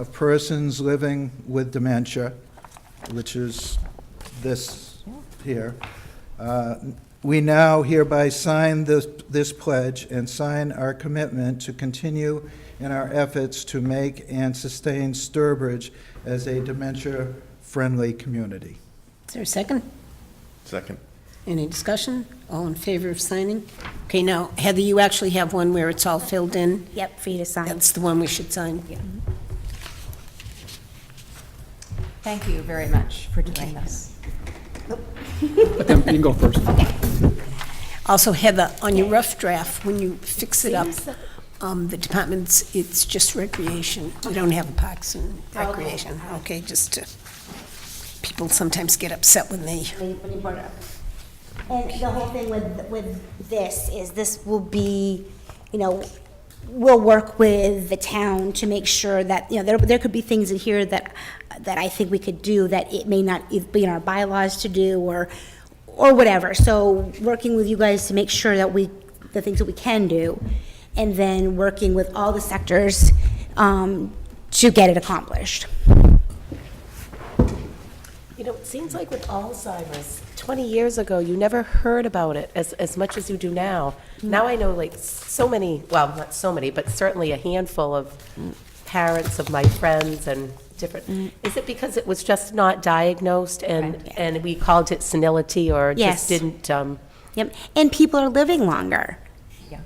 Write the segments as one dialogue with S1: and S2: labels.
S1: of persons living with dementia, which is this here. Uh, We now hereby sign this, this pledge and sign our commitment to continue in our efforts to make and sustain Sturbridge as a dementia-friendly community.
S2: Is there a second?
S3: Second.
S2: Any discussion? All in favor of signing? Okay, now, Heather, you actually have one where it's all filled in.
S4: Yep, for you to sign.
S2: That's the one we should sign. Yeah.
S5: Thank you very much for doing this.
S6: Then you can go first.
S2: Also, Heather, on your rough draft, when you fix it up, um, the departments, it's just recreation. We don't have parks and recreation, okay? Just, to- people sometimes get upset when they,
S4: When you- when you brought it up. And the whole thing with, with this is this will be, you know, we'll work with the town to make sure that, you know, there, there could be things in here that, that I think we could do that it may not e- be in our bylaws to do or, or whatever. So working with you guys to make sure that we, the things that we can do, and then working with all the sectors, um, to get it accomplished.
S7: You know, it seems like with Alzheimer's, 20 years ago, you never heard about it as, as much as you do now. Now I know like so many, well, not so many, but certainly a handful of parents of my friends and different. Is it because it was just not diagnosed and,
S4: Mm. Right.
S7: and we called it senility or
S4: Yes.
S7: just didn't, um,
S4: Yep, and people are living longer.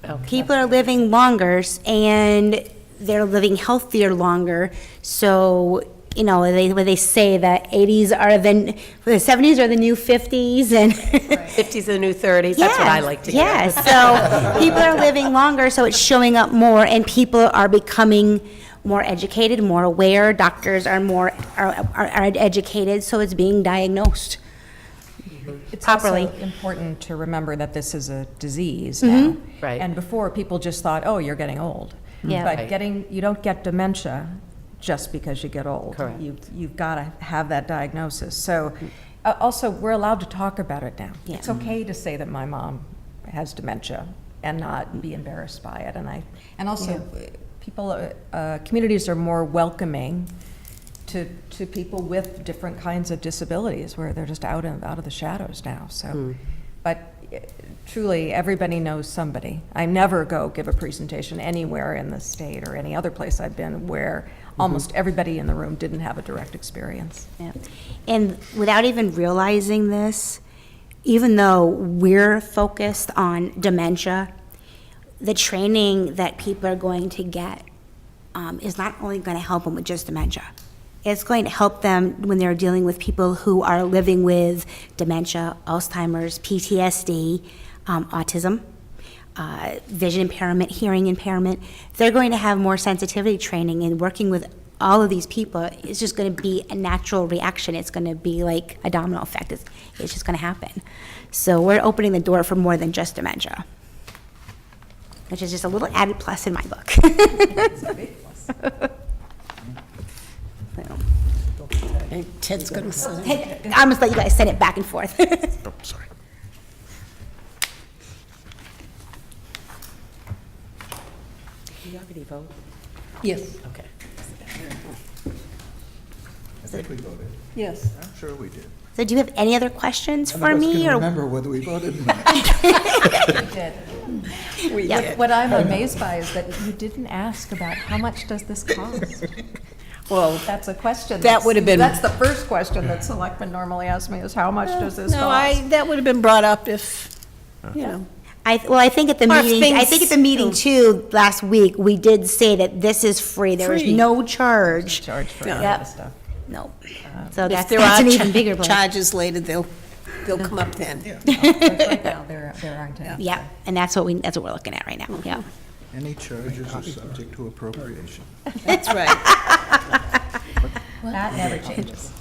S7: oh,
S4: People are living longer s- and they're living healthier longer. So, you know, they, when they say that 80s are the, the 70s are the new 50s and.
S7: 50s are the new 30s, that's what I like to hear.
S4: Yeah, so people are living longer, so it's showing up more and people are becoming more educated, more aware. Doctors are more, are, are are educated, so it's being diagnosed. Properly. Mm-hmm.
S5: It's also important to remember that this is a disease now.
S7: Right.
S5: And before, people just thought, oh, you're getting old.
S4: Yeah.
S5: But
S7: Right.
S5: getting, you don't get dementia just because you get old.
S7: Correct.
S5: You- You've got to have that diagnosis. So, uh, also, we're allowed to talk about it now.
S4: Yeah.
S5: It's okay to say that my mom has dementia and not be embarrassed by it. And I, and also, uh, people, uh, uh, communities are more welcoming to, to people with different kinds of disabilities where they're just out of, out of the shadows now, so. But eh, truly, everybody knows somebody. I never go give a presentation anywhere in the state or any other place I've been where almost everybody in the room didn't have a direct experience.
S4: Yeah. And without even realizing this, even though we're focused on dementia, the training that people are going to get um, is not only going to help them with just dementia. It's going to help them when they're dealing with people who are living with dementia, Alzheimer's, PTSD, um, autism, uh, vision impairment, hearing impairment. They're going to have more sensitivity training and working with all of these people. It's just going to be a natural reaction. It's going to be like a domino effect. It's, it's just going to happen. So we're opening the door for more than just dementia, which is just a little added plus in my book. So.
S2: and Ted's going to sign.
S4: I almost let you guys send it back and forth.
S3: Oh, sorry.
S7: You already voted.
S2: Yes.
S7: Okay.
S1: I think we voted.
S6: Yes.
S1: I'm sure we did.
S4: So do you have any other questions
S1: None
S4: for
S1: of us
S4: me?
S1: can
S4: or
S1: remember whether we voted or not.
S5: What I'm amazed by is that you didn't ask about how much does this cost?
S2: Well,
S5: That's a question.
S2: That would have been-
S5: That's the first question that selectmen normally ask me is how much does this cost?
S2: Oh, no, I, that would have been brought up if, you know.
S4: I, well, I think at the
S2: Or if
S4: meeting, I
S2: things-
S4: think at the meeting too, last week, we did say that this is free. There was
S2: Free.
S4: no charge.
S5: Charge for
S2: Yeah.
S5: all
S4: Yep.
S5: this stuff.
S4: No. So
S2: Uh, If
S4: that's,
S2: there
S4: that's
S2: are
S4: an
S2: cha-
S4: even bigger blow.
S2: charges later, they'll, they'll come up then.
S5: Right now, there, there aren't any.
S4: Yeah, and that's what we, that's what we're looking at right now, yeah.
S1: Any charges are subject to appropriation.
S2: That's right.
S5: That never changes.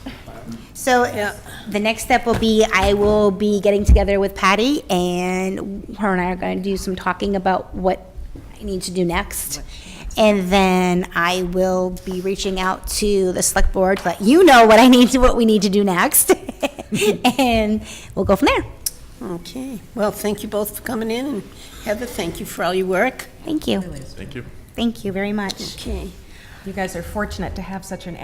S4: So
S2: Yeah.
S4: the next step will be, I will be getting together with Patty and her and I are going to do some talking about what I need to do next. And then I will be reaching out to the select board to let you know what I need to, what we need to do next. And we'll go from there.
S2: Okay. Well, thank you both for coming in, and Heather, thank you for all your work.
S4: Thank you. Thank you. Thank you very much.
S2: Okay.
S5: You guys are fortunate to have such an